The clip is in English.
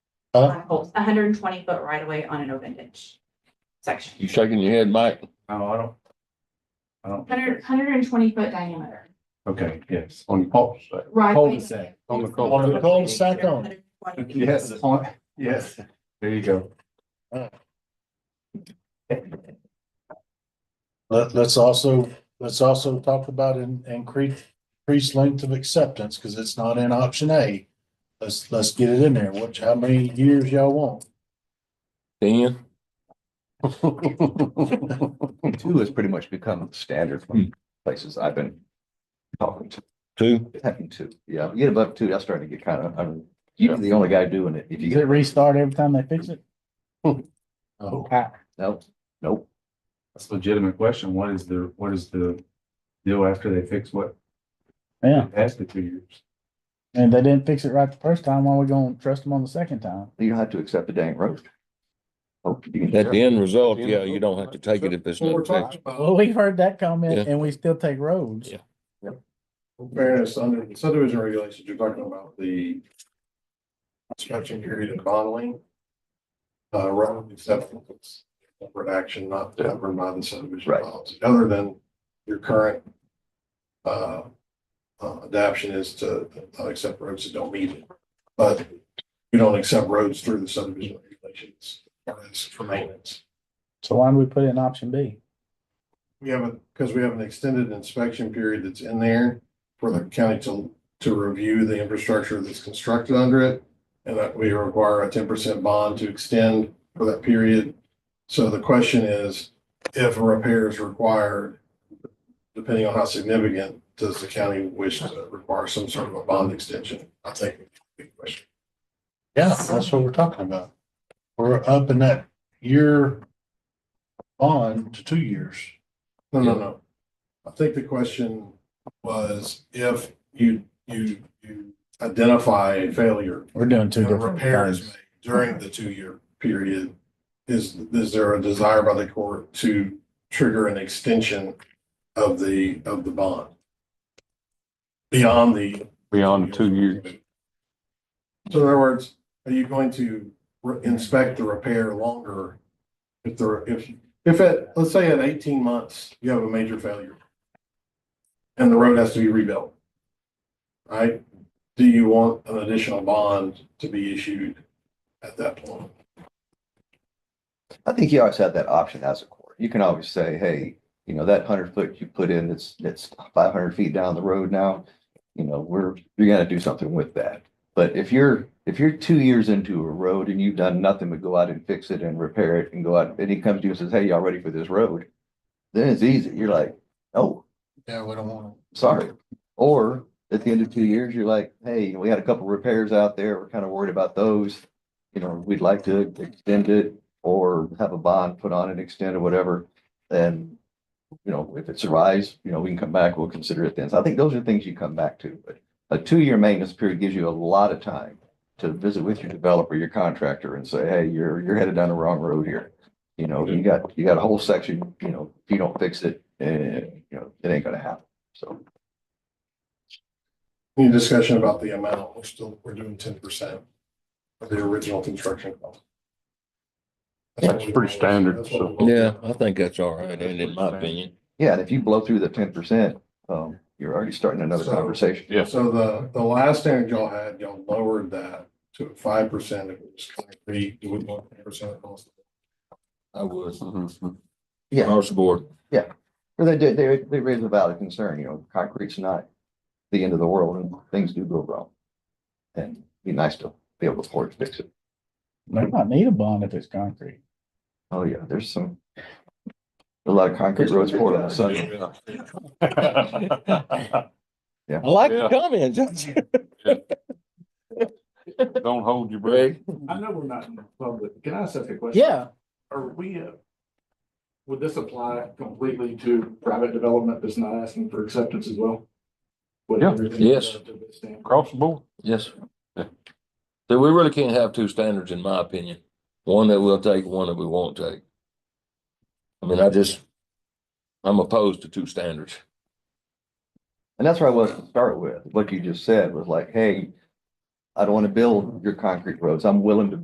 Huh? on post, hundred and twenty foot right away on an open ditch section, You shaking your head, Mike? No, Oh, I don't. I don't. 100 120 foot diameter. Okay, yes, on the pulse. Right. Cul-de-sac. On the cul-de-sac. On the cul-de-sac on. Yes, on, yes, there you go. Let, let's also, let's also talk about in, increase, increased length of acceptance, because it's not in option A. Let's, let's get it in there, which, how many years y'all want? Ten? Two has pretty much become standard Hmm. from places I've been talking to, Two? having two. Yeah, you get above two, that's starting to get kind of, I'm, you're the only guy doing it. If you get, restart every time they fix it? Oh, no, nope. That's a legitimate question. What is the, what is the deal after they fix what? Yeah. Past the two years. And they didn't fix it right the first time, why we gonna trust them on the second time? You don't have to accept the dang road. Hope you can- At the end result, yeah, you don't have to take it if it's not fixed. Well, we've heard that comment Yeah. and we still take roads. Yeah. Fairness, under the subdivision regulations, you're talking about the inspection period and modeling. Uh, rather than acceptance, separate action not governed by the subdivision Right. policy, other than your current uh, uh, adaption is to not accept roads that don't meet it. But you don't accept roads through the subdivision regulations as for maintenance. So why do we put in option B? We have a, because we have an extended inspection period that's in there for the county to, to review the infrastructure that's constructed under it. And that we require a ten percent bond to extend for that period. So the question is, if a repair is required, depending on how significant, does the county wish to require some sort of a bond extension? I think. it's a big question. yeah, that's what we're talking about. We're up in that year bond to two years. No, no, no. I think the question was if you, you, you identify a failure We're doing two and different repair is things. made during the two-year period, is, is there a desire by the court to trigger an extension of the, of the bond? Beyond the. Beyond two years. So in other words, are you going to re- inspect the repair longer? If there, if, if at, let's say at eighteen months, you have a major failure. And the road has to be rebuilt. Right? Do you want an additional bond to be issued at that point? I think you always have that option as a court. You can always say, hey, you know, that hundred foot you put in, it's, it's five hundred feet down the road now. You know, we're, you gotta do something with that. But if you're, if you're two years into a road and you've done nothing but go out and fix it and repair it and go out, and he comes to you and says, hey, y'all ready for this road? Then it's easy. You're like, oh, Yeah, we don't want sorry. Or at the end of two years, you're like, hey, we had a couple repairs out there. We're kind of worried about those. You know, we'd like to extend it or have a bond put on it, extend or whatever. And, you know, if it survives, you know, we can come back, we'll consider it then. So I think those are things you come back to. But a two-year maintenance period gives you a lot of time to visit with your developer, your contractor and say, hey, you're, you're headed down the wrong road here. You know, you got, you got a whole section, you know, if you don't fix it, eh, you know, it ain't gonna happen. So. Any discussion about the amount? We're still, we're doing ten percent of the original construction cost. That's pretty standard, That's what we- Yeah, I think that's all right, and in my opinion. Yeah, and if you blow through the ten percent, um, you're already starting another So- conversation. Yeah. So the, the last standard y'all had, y'all lowered that to five percent if it was concrete, you would want ten percent of cost. I was. Yeah. Across the board. Or they did, they, they raised a valid concern, you know, concrete's not the end of the world and things do go wrong. And it'd be nice to be able to afford to fix it. They might need a bond if it's concrete. Oh, yeah, there's some, a lot of concrete roads poured on the sun. I like Yeah. the comments. Don't hold your Ray, I know we're not in the public. Can I ask a question? Yeah, Are we, uh, would this apply completely to private development that's not asking for acceptance as well? Would Yeah. everything Yes. go to this standard? Across the board. Yes. So we really can't have two standards, in my opinion. One that we'll take, one that we won't take. I mean, I just, I'm opposed to two standards. And that's where I was to start with. What you just said was like, hey, I don't want to build your concrete roads. I'm willing to